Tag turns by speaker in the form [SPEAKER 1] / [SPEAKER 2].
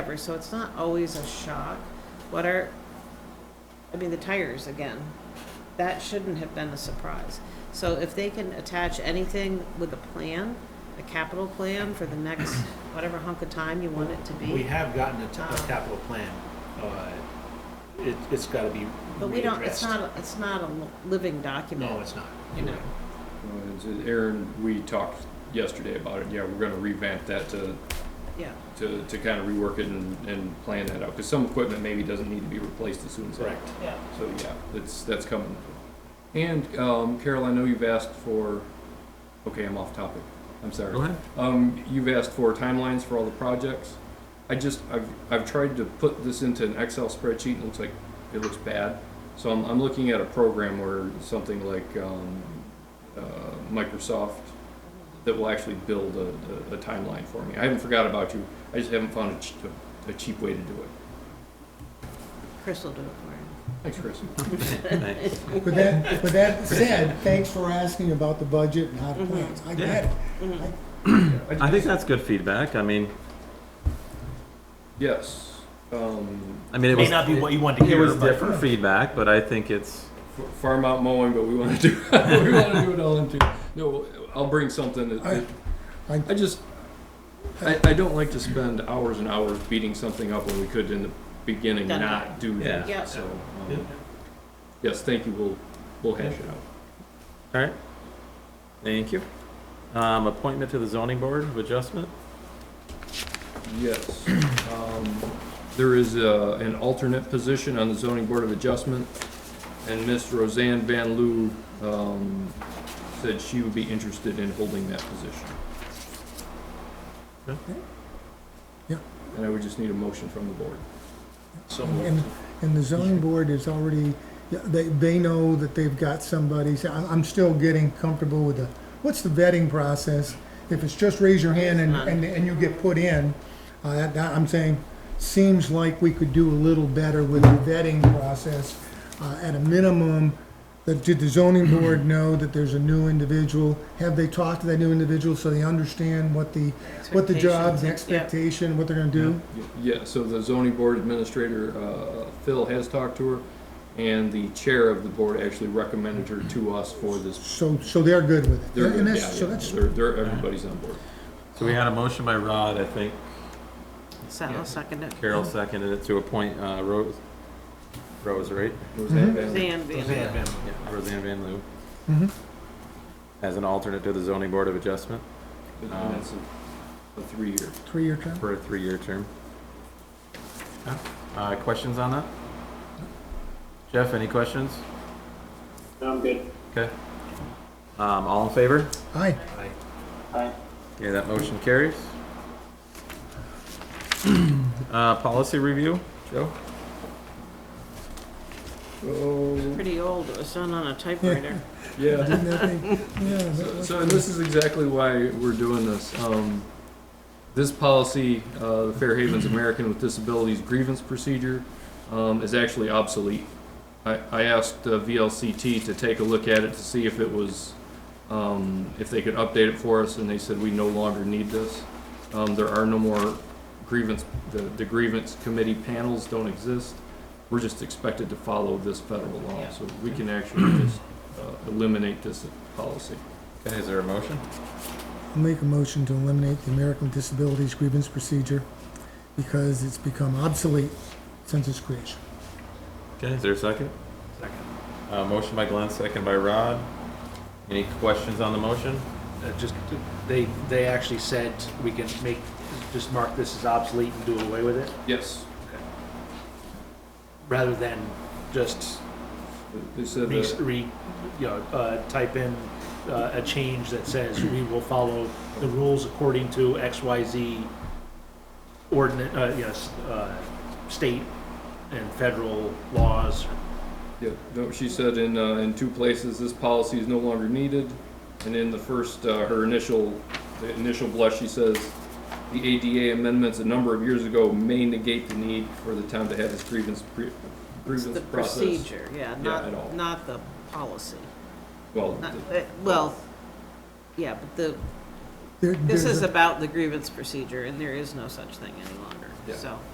[SPEAKER 1] whatever, so it's not always a shock. What are, I mean, the tires again, that shouldn't have been a surprise. So if they can attach anything with a plan, a capital plan for the next whatever hunk of time you want it to
[SPEAKER 2] We
[SPEAKER 1] be.
[SPEAKER 2] have gotten a, t- a
[SPEAKER 1] Um,
[SPEAKER 2] capital plan. Uh, it, it's gotta be
[SPEAKER 1] But we don't, it's
[SPEAKER 2] readdressed.
[SPEAKER 1] not, a- it's not a li- living document.
[SPEAKER 2] No, it's not.
[SPEAKER 1] You know.
[SPEAKER 3] Uh, it's- uh, Aaron, we talked yesterday about it, yeah, we're gonna revamp that to,
[SPEAKER 1] Yeah,
[SPEAKER 3] to, to kind of rework it and, and plan that out, cause some equipment maybe doesn't need to be replaced as soon as. that.
[SPEAKER 2] Correct.
[SPEAKER 1] yeah.
[SPEAKER 3] So, yeah, that's, that's coming. And, um, Carol, I know you've asked for, okay, I'm off topic, I'm sorry.
[SPEAKER 4] Go ahead.
[SPEAKER 3] Um, you've asked for timelines for all the projects. I just, I've, I've tried to put this into an Excel spreadsheet and it looks like, it looks bad. So I'm, I'm looking at a program where something like, um, uh, Microsoft that will actually build a, a, a timeline for me. I haven't forgot about you. I just haven't found a, ch- a cheap way to do it.
[SPEAKER 1] Chris will do it for you.
[SPEAKER 3] Thanks, Chris.
[SPEAKER 4] Thanks.
[SPEAKER 5] But that, but that said, thanks for asking about the budget and how to plan.
[SPEAKER 4] Mm-hmm.
[SPEAKER 5] I get it.
[SPEAKER 4] I think that's good feedback. I mean,
[SPEAKER 3] Yes. Um,
[SPEAKER 4] I mean, it
[SPEAKER 2] It
[SPEAKER 4] was
[SPEAKER 2] may not be what you want to
[SPEAKER 4] it, it
[SPEAKER 2] hear,
[SPEAKER 4] was
[SPEAKER 2] but
[SPEAKER 4] different feedback, but I think it's
[SPEAKER 3] f- farm out mowing, but we want to do we want to do it all in two. No, I'll bring something that. that-
[SPEAKER 5] I- I-
[SPEAKER 3] I just I, I don't like to spend hours and hours beating something up when we could in the beginning
[SPEAKER 1] Done.
[SPEAKER 3] not do that.
[SPEAKER 1] Yeah. Yep.
[SPEAKER 3] So um,
[SPEAKER 4] Yeah.
[SPEAKER 3] yes, thank you. We'll we'll hash it out.
[SPEAKER 4] all right. Thank you. Um, appointment to the zoning board of adjustment.
[SPEAKER 3] Yes. Um, There is uh, an alternate position on the zoning board of adjustment, and Miss Roseanne Van Loo um, said she would be interested in holding that position.
[SPEAKER 4] Okay.
[SPEAKER 5] Yeah.
[SPEAKER 3] And I would just need a motion from the board.
[SPEAKER 2] so
[SPEAKER 5] And, and the zoning board is already, yeah, they, they know that they've got somebody. So I'm, I'm still getting comfortable with the, what's the vetting process? If it's just raise your hand and, and, and you get put in, uh, that- that- I'm saying, seems like we could do a little better with the vetting process. Uh, at a minimum, that, did the zoning board know that there's a new individual? Have they talked to that new individual so they understand what the, what the job's
[SPEAKER 1] Expectations.
[SPEAKER 5] expectation, what they're gonna do?
[SPEAKER 3] Yeah, so the zoning board administrator, uh, Phil, has talked to her, and the chair of the board actually recommended her to us for this.
[SPEAKER 5] So, so they're good with it.
[SPEAKER 3] They're-
[SPEAKER 5] And
[SPEAKER 3] yeah,
[SPEAKER 5] that's, so
[SPEAKER 3] yeah,
[SPEAKER 5] that's,
[SPEAKER 3] They're, they're- everybody's on board.
[SPEAKER 4] So we had a motion by Rod, I think.
[SPEAKER 1] Yeah. So I'll second it.
[SPEAKER 4] Carol seconded it to appoint uh, Rose. Rose, right?
[SPEAKER 5] Mm-hmm.
[SPEAKER 3] Roseanne Van Loo.
[SPEAKER 1] Zan being
[SPEAKER 2] Roseanne Van Loo.
[SPEAKER 4] Yeah, Roseanne Van Loo
[SPEAKER 5] mhm. Mm-hmm.
[SPEAKER 4] as an alternate to the zoning board of adjustment
[SPEAKER 3] And that's a- a three-year.
[SPEAKER 5] three-year term.
[SPEAKER 4] for a three-year term. Uh, questions on that? Jeff, any questions?
[SPEAKER 6] I'm good.
[SPEAKER 4] Okay. Um, all in favor?
[SPEAKER 5] Aye.
[SPEAKER 6] Aye.
[SPEAKER 4] Okay, that motion carries. Uh, policy review, Joe?
[SPEAKER 1] pretty old. It was done on a typewriter.
[SPEAKER 3] Yeah.
[SPEAKER 5] Didn't that thing- yeah, that
[SPEAKER 3] So,
[SPEAKER 5] was-
[SPEAKER 3] so, and this is exactly why we're doing this. Um, this policy, uh, the Fair Havens American with Disabilities grievance procedure, um, is actually obsolete. I, I asked uh, VLCT to take a look at it to see if it was, um, if they could update it for us, and they said we no longer need this. Um, there are no more grievance, the, the grievance committee panels don't exist. We're just expected to follow this federal law, so we can actually just, uh, eliminate this policy.
[SPEAKER 4] Okay, is there a motion?
[SPEAKER 5] I'll make a motion to eliminate the American Disabilities Grievance Procedure because it's become obsolete since its creation.
[SPEAKER 4] Okay, is there a second? Second. Uh, motion by Glenn, second by Rod. Any questions on the motion?
[SPEAKER 2] uh, just, they, they actually said we can make, just mark this as obsolete and do away with it,
[SPEAKER 3] Yes.
[SPEAKER 2] rather than just
[SPEAKER 3] They said
[SPEAKER 2] re,
[SPEAKER 3] that,
[SPEAKER 2] re, you know, uh, type in uh, a change that says we will follow the rules according to X, Y, Z ordinance, uh, yes, uh, state and federal laws.
[SPEAKER 3] yeah, no, she said in, uh, in two places, this policy is no longer needed. And in the first, uh, her initial, the initial blush, she says, the ADA amendments a number of years ago may negate the need for the town to have this grievance, pre-
[SPEAKER 1] It's
[SPEAKER 3] grievance
[SPEAKER 1] the
[SPEAKER 3] process.
[SPEAKER 1] procedure, yeah,
[SPEAKER 3] at all.
[SPEAKER 1] not, not the policy.
[SPEAKER 3] Well,
[SPEAKER 1] Not-
[SPEAKER 3] the-
[SPEAKER 1] uh, Well, yeah, but the,
[SPEAKER 5] There-
[SPEAKER 1] this
[SPEAKER 5] there's
[SPEAKER 1] is
[SPEAKER 5] a-
[SPEAKER 1] about the grievance procedure, and there is no such thing any longer,
[SPEAKER 3] Yeah.
[SPEAKER 1] so.